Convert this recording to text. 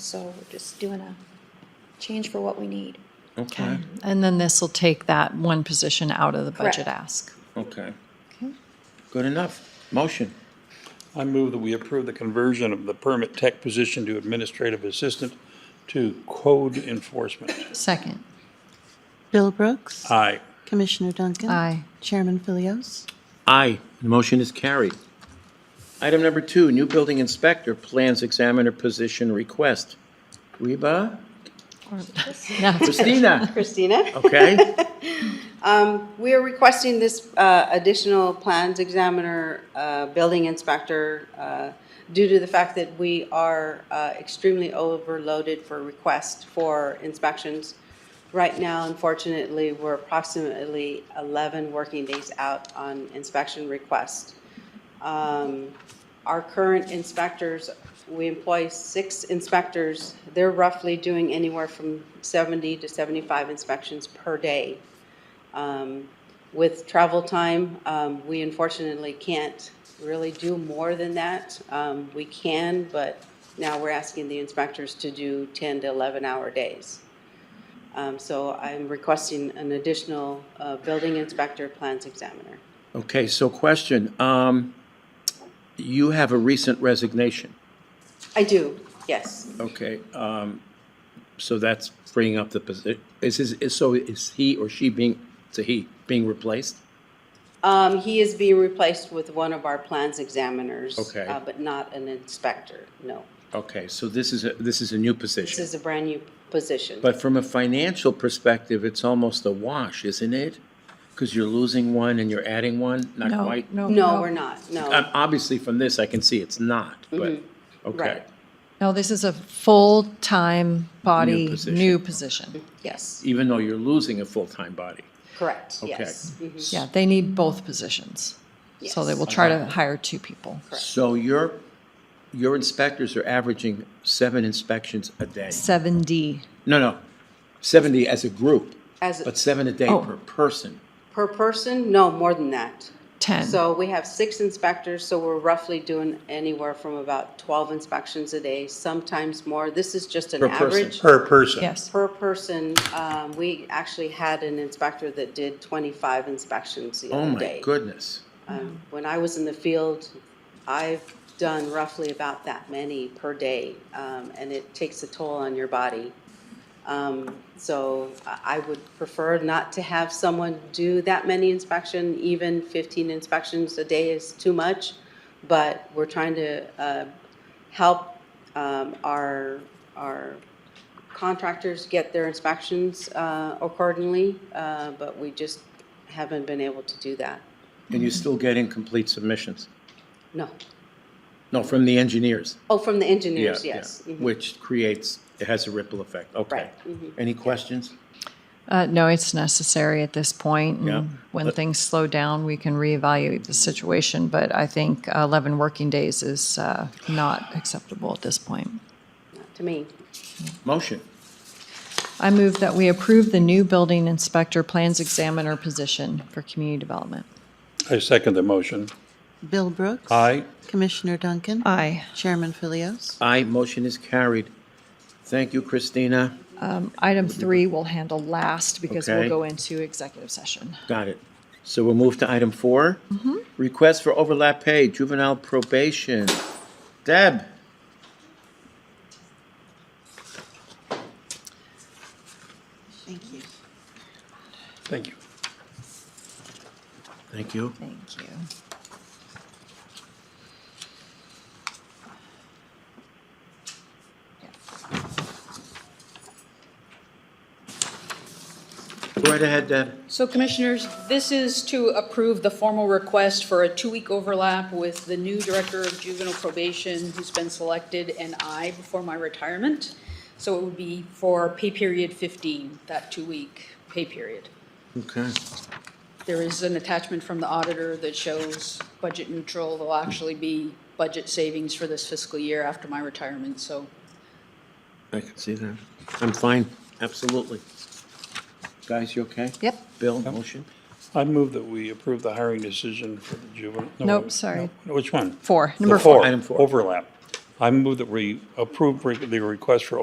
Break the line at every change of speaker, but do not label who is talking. So we're just doing a change for what we need.
Okay,
And then this will take that one position out of the budget
Correct.
ask.
okay. Good enough. Motion.
I move that we approve the conversion of the permit tech position to administrative assistant to code enforcement.
Second.
Bill Brooks.
Aye.
Commissioner Duncan.
Aye.
Chairman Philios.
Aye, the motion is carried. Item number two, new building inspector plans examiner position request. Reba?
No,
Christina?
Christina.
Okay,
We are requesting this uh, additional plans examiner, uh, building inspector, uh, due to the fact that we are uh, extremely overloaded for requests for inspections. Right now, unfortunately, we're approximately 11 working days out on inspection requests. Um, Our current inspectors, we employ six inspectors. They're roughly doing anywhere from 70 to 75 inspections per day. Um, With travel time, um, we unfortunately can't really do more than that. Um, We can, but now we're asking the inspectors to do 10 to 11-hour days. Um, So I'm requesting an additional uh, building inspector, plans examiner.
okay, so question, um, you have a recent resignation,
I do, yes.
okay? Um, so that's freeing up the position, is, his- is, so is he or she being, it's a he, being replaced?
Um, He is being replaced with one of our plans examiners.
Okay.
uh, But not an inspector, no.
Okay, so this is, a this is a new
This
position.
is a brand-new position.
But from a financial perspective, it's almost a wash, isn't it? Because you're losing one and you're adding one, not
no,
quite.
no.
No, we're not, no.
Um, Obviously, from this, I can see it's not, but, okay.
Right.
No, this is a full-time
New
body,
position.
new position.
Yes,
Even though you're losing a full-time body.
correct,
Okay.
yes. Mhm.
Yeah, they need both positions. So they will try to hire two people.
So your, your inspectors are averaging seven inspections a day.
Seven D.
No, no, 70 as a group,
As,
but seven a day
Oh.
per person.
per person, no, more than that.
10.
So we have six inspectors, so we're roughly doing anywhere from about twelve inspections a day, sometimes more. This is just an
Per person.
average.
Per person.
Yes.
Per person, um, we actually had an inspector that did twenty-five inspections the
Oh,
other
my
day.
goodness.
Um, When I was in the field, I've done roughly about that many per day, um, and it takes a toll on your body. Um, So I- I would prefer not to have someone do that many inspection, even 15 inspections a day is too much, but we're trying to uh, help um, our, our contractors get their inspections uh, accordingly, uh, but we just haven't been able to do that.
And you still get incomplete submissions?
No.
No, from the engineers.
Oh, from the
Yeah,
engineers,
yeah.
yes. Mhm.
Which creates, it has a ripple effect, okay.
Right, mm-hmm.
Any questions?
Uh, no, it's necessary at this point. and
Yeah.
When things slow down, we can reevaluate the situation, but I think eleven working days is, uh, not acceptable at this point.
Not To me,
Motion,
I move that we approve the new building inspector plans examiner position for community development.
I second the motion.
Bill Brooks.
Aye.
Commissioner Duncan.
Aye.
Chairman Philios.
aye, motion is carried. Thank you, Christina.
Item three we'll handle last because we'll
Okay.
go into executive session.
Got it. So we'll move to item 4
Mm-hmm.
Request for overlap pay, juvenile probation. Deb?
Thank you.
Thank you.
Thank you.
Thank you.
Right ahead, Deb.
So Commissioners, this is to approve the formal request for a two-week overlap with the new Director of Juvenile Probation who's been selected and I before my retirement. So it would be for pay period 15, that two-week pay period.
Okay.
There is an attachment from the auditor that shows budget neutral. There'll actually be budget savings for this fiscal year after my retirement, so
I can see that. I'm fine, absolutely. Guys, you okay?
Yep.
Bill, motion?
I move that we approve the hiring decision for the juvenile. no,
Nope, sorry.
no, Which one?
Four,
The
number four.
Item four.
Overlap. I move that we approve the request for